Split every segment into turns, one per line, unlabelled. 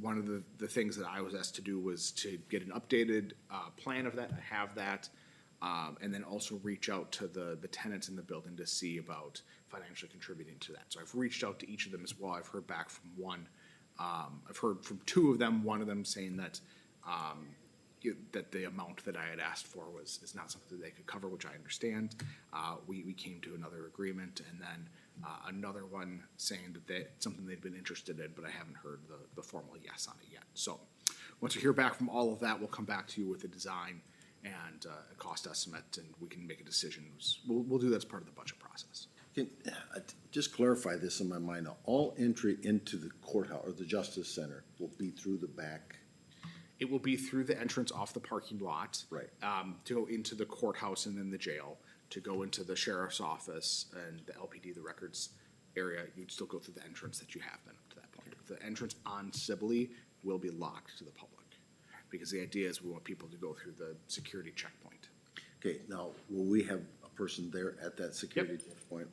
one of the, the things that I was asked to do was to get an updated, uh, plan of that, I have that. Um, and then also reach out to the, the tenants in the building to see about financially contributing to that. So I've reached out to each of them as well, I've heard back from one. Um, I've heard from two of them, one of them saying that, um, you- that the amount that I had asked for was, is not something they could cover, which I understand. Uh, we, we came to another agreement, and then, uh, another one saying that they, something they'd been interested in, but I haven't heard the, the formal yes on it yet. So, once we hear back from all of that, we'll come back to you with a design and, uh, a cost estimate, and we can make a decision. We'll, we'll do that as part of the budget process.
Can, uh, just clarify this in my mind, now. all entry into the courthouse or the justice center will be through the back.
It will be through the entrance off the parking lot.
Right.
Um, to go into the courthouse and then the jail, to go into the sheriff's office and the LPD, the records area, you'd still go through the entrance that you have been up to that point. The entrance on Sibley will be locked to the public, because the idea is we want people to go through the security checkpoint.
Okay, now, will we have a person there at that security checkpoint?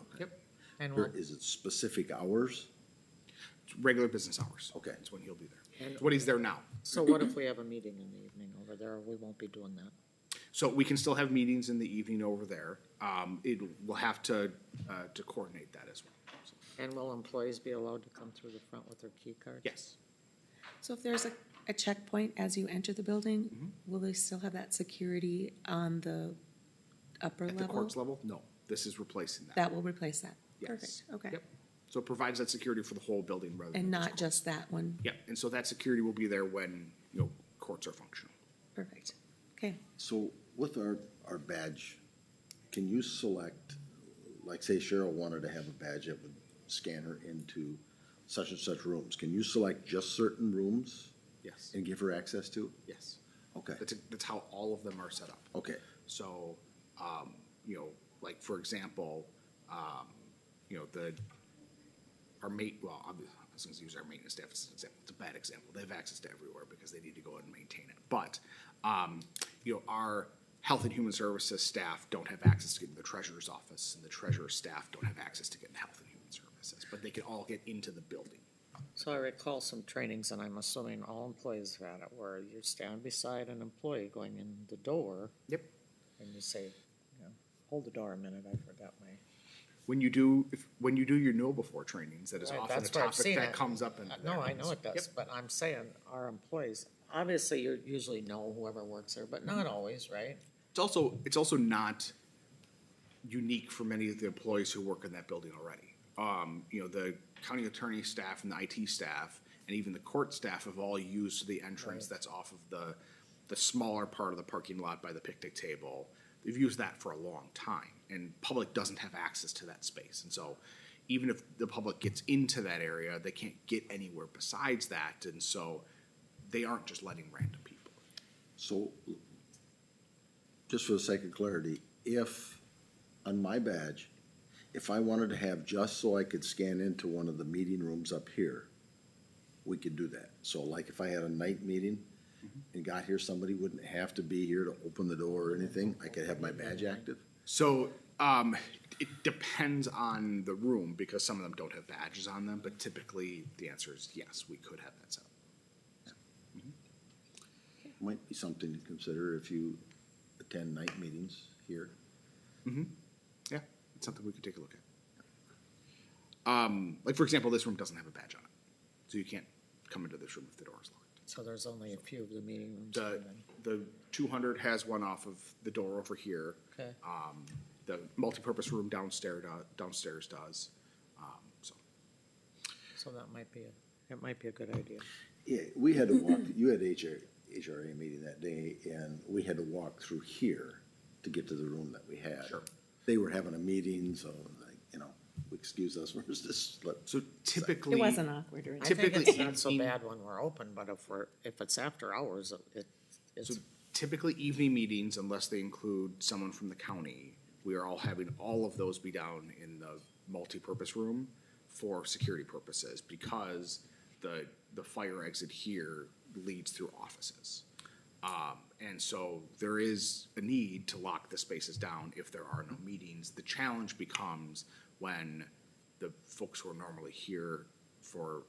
Okay.
Yep.
And
Or
we'll,
Is it specific hours?
It's Regular business hours.
Okay.
That's when he'll be there.
And-
It's when he's there now.
so what if we have a meeting in the evening over there? We won't be doing that.
So we can still have meetings in the evening over there. Um, it, we'll have to, uh, to coordinate that as well. So,
And will employees be allowed to come through the front with their key cards?
Yes.
So if there's a, a checkpoint as you enter the building,
Mm-hmm.
will they still have that security on the upper
At the
level?
courts level? No, this is replacing that.
That will replace that?
Yes.
Perfect, okay.
Yep. So it provides that security for the whole building rather than.
And not just that one?
Yeah, and so that security will be there when, you know, courts are functional.
Perfect, okay.
So with our, our badge, can you select, like say Cheryl wanted to have a badge that would scan her into such and such rooms, can you select just certain rooms
Yes,
and give her access to?
yes.
Okay,
That's, that's how all of them are set up.
okay,
So, um, you know, like, for example, um, you know, the, our mate, well, I'm, I was gonna use our maintenance staff as an example, it's a bad example, they have access to everywhere because they need to go out and maintain it, but, um, you know, our health and human services staff don't have access to get to the treasurer's office, and the treasurer's staff don't have access to get to health and human services, but they can all get into the building.
So I recall some trainings, and I'm assuming all employees have had it, where you stand beside an employee going in the door,
Yep.
and you say, you know, hold the door a minute, I forgot my.
When you do, if, when you do your know before trainings, that is
Right,
often a
that's where I've
topic
seen
that
it.
comes up in.
Uh,
there.
No, I know it
Yep.
does, but I'm saying our employees, obviously you usually know whoever works there, but not always, right?
It's also, it's also not unique for many of the employees who work in that building already. Um, you know, the county attorney staff and the IT staff and even the court staff have all used the entrance that's off of the, the smaller part of the parking lot by the picnic table. They've used that for a long time and public doesn't have access to that space. And so even if the public gets into that area, they can't get anywhere besides that. And so they aren't just letting random people.
so, just for the sake of clarity, if, on my badge, if I wanted to have just so I could scan into one of the meeting rooms up here, we could do that. So like if I had a night meeting and got here, somebody wouldn't have to be here to open the door or anything, I could have my badge active?
So um, it depends on the room because some of them don't have badges on them, but typically the answer is yes, we could have that set up.
Might be something to consider if you attend night meetings here.
Yeah, it's something we could take a look at. Um, like for example, this room doesn't have a badge on it, so you can't come into this room if the door is locked.
So there's only a few of the meeting rooms.
The
open.
the 200 has one off of the door over here.
Okay.
Um, the multipurpose room downstairs do- downstairs does. Um, so
So that might be, a it might be a good idea.
Yeah, we had to walk, you had HR, HRA meeting that day, and we had to walk through here to get to the room that we had.
Sure.
They were having a meeting, so like, you know, excuse us, we're just, let-
so typically
It wasn't awkward or
I
anything.
think
Typically
it's not so
evening-
bad when we're open, but if we're, if it's after hours, it,
So
it's,
typically evening meetings, unless they include someone from the county, we are all having all of those be down in the multipurpose room for security purposes because the, the fire exit here leads through offices. Um, and so there is a need to lock the spaces down if there are no meetings. The challenge becomes when the folks who are normally here for,